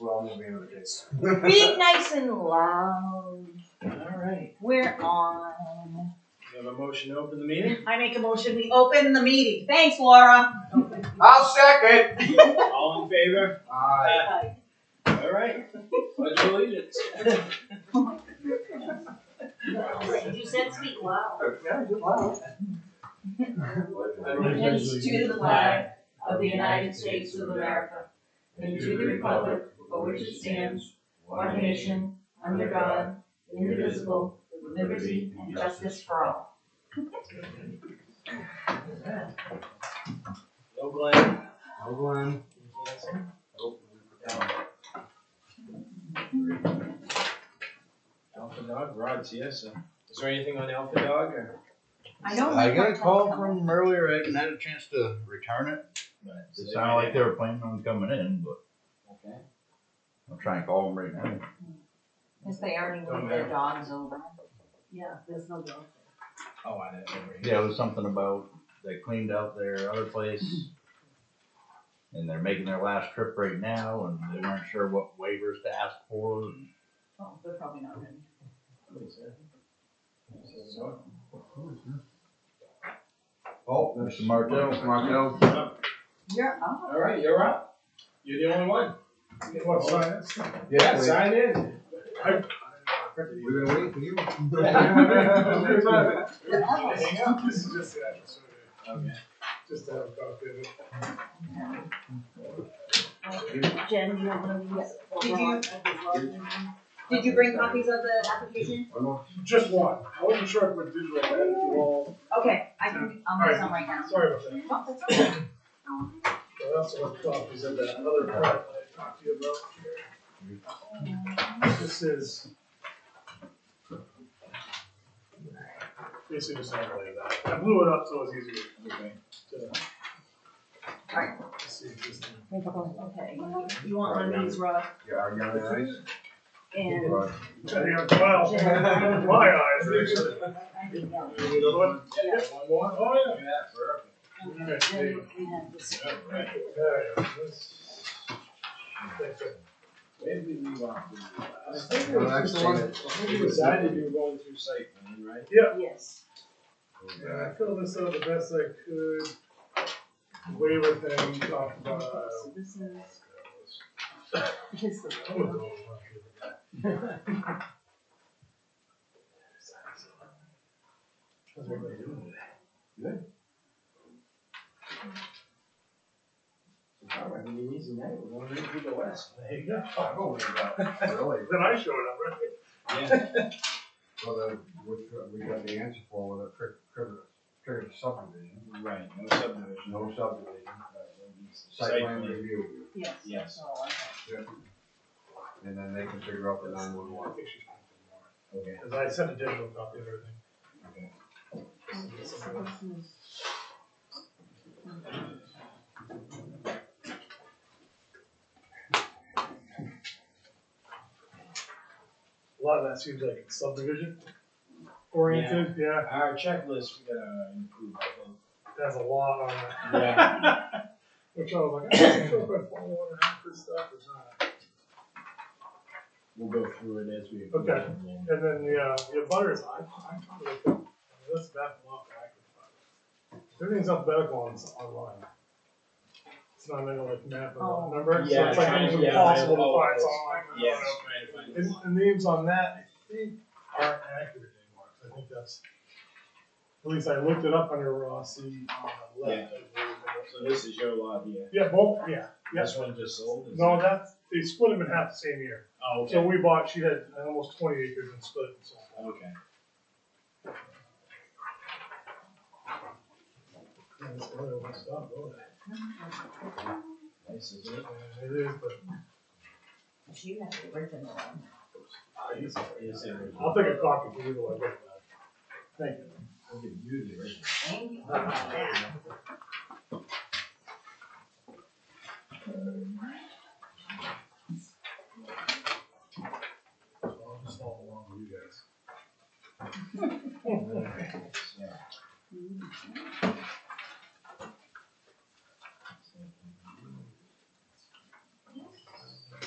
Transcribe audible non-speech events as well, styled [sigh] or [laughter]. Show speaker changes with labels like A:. A: We're all gonna be able to do this.
B: Read nice and loud.
A: All right.
B: We're on.
A: You have a motion to open the meeting?
B: I make a motion, we open the meeting. Thanks, Laura.
C: I'll second.
A: All in favor?
C: Aye.
A: All right. Pledge of allegiance.
B: You said speak loud.
C: Yeah, good luck.
B: Allegiance to the flag of the United States of America and to the republic for which it stands, one nation, under God, indivisible, with liberty and justice for all.
A: No Glenn.
C: Hold on.
A: Alpha Dog, Rod's here, so. Is there anything on Alpha Dog or?
B: I don't
D: I got a
B: remember
D: call
B: coming.
D: from them earlier, I haven't had a chance to return it. It sounded like they were planning on coming in, but
A: Okay.
D: I'll try and call them right now.
B: Yes, they already
A: Don't
B: moved their
A: matter.
B: dogs over. Yeah, there's no dog.
A: Oh, I didn't know.
D: Yeah, it was something about they cleaned out their other place. And they're making their last trip right now and they weren't sure what waivers to ask for.
B: Oh, they're probably not ready.
C: Oh,
D: Mr. Martel.
C: Martel.
B: You're up.
A: All right, you're up. You're the only one.
C: What, sign
A: Yeah,
C: please.
A: sign
B: [laughs]
A: in.
C: We've been waiting for you. [laughs]
E: Hang up, this is just an episode,
A: Okay.
E: just to have a cocktail.
B: Jen, you want to Did you? Did you bring copies of the application?
E: Just one, I wasn't sure if it was digital, I had it all,
B: Okay, I can, I'll make some right now.
E: sorry about that.
B: Oh, that's all right.
E: I also have copies of that other product I talked to you about. This is. Basically just something like that, I blew it up so it was easier. to-
B: Alright.
E: to see this thing.
B: Okay, you want one of these, Rob,
C: [laughs] Yeah, I got it.
B: and
E: Trying to get miles [laughs] in my eyes, actually.
B: I think that,
E: You need another one?
B: Yeah.
E: One more? Oh, yeah.
B: and
E: Okay, there you go.
B: then we have this.
A: Yeah, right. Where did we leave off? I think it
C: Well, that's
A: was just one, I
C: it.
A: think you decided you were going through site plan, right?
B: Yes.
E: Yeah, I filled this out the best I could. Waiver thing, talked about. uh,
B: So this is. His.
E: what was it?
A: How's everybody doing today? Good. All right, I mean, easy night, we're going right through the west.
E: There you go.
C: Oh, yeah, really?
E: Then I showed up, right?
A: Yeah.
C: Well, then, which, uh, we got the answer for with a trick, trick, trick subdivision,
A: Right, no subdivision.
C: no subdivision,
A: Site
C: site plan
A: plan.
C: review,
B: Yes.
A: Yes.
B: So I-
C: and then they can figure out the nine one one.
E: I think she's going to the
A: Okay.
E: warrant. Cause I sent a digital copy of everything.
B: so this is-
E: A lot of that seems like it's subdivision oriented, yeah,
A: Our checklist, we gotta improve, I
E: there's a lot on that.
A: think. Yeah.
E: Which I was like, I'm not sure if I follow one half this stuff or not.
A: We'll go through it as we.
E: Okay. And then the, uh, the butters, I, I probably, I mean, that's that block that I could find. Everything's alphabetical on, online. It's not like, like map
B: Oh.
E: or number, so
A: Yeah,
E: it's like
A: trying-
E: almost
A: yeah,
E: impossible
A: I-
E: to
A: oh,
E: find, so
A: it's-
E: I'm like, I don't
A: Yes.
E: know. And, and names on that, I think, aren't accurate anymore, 'cause I think that's, at least I looked it up under Rossi on the left. I believe it was.
A: So this is your lot here.
E: Yeah, both, yeah,
A: This one just sold? is
E: no,
A: it?
E: that's, they split them in half the same year.
A: Oh, okay.
E: So we bought, she had almost twenty acres and split it and sold it.
A: Okay.
E: Yeah, that's the other one, so, oh,
A: Nice, isn't it?
E: It is, but
B: She has the original one.
A: Yes, yes, it is.
E: I'll take a copy for you while I get that. Thank you.
A: I'll give you the original.
B: Thank you. Yeah.
E: So I'll just follow along with you guys.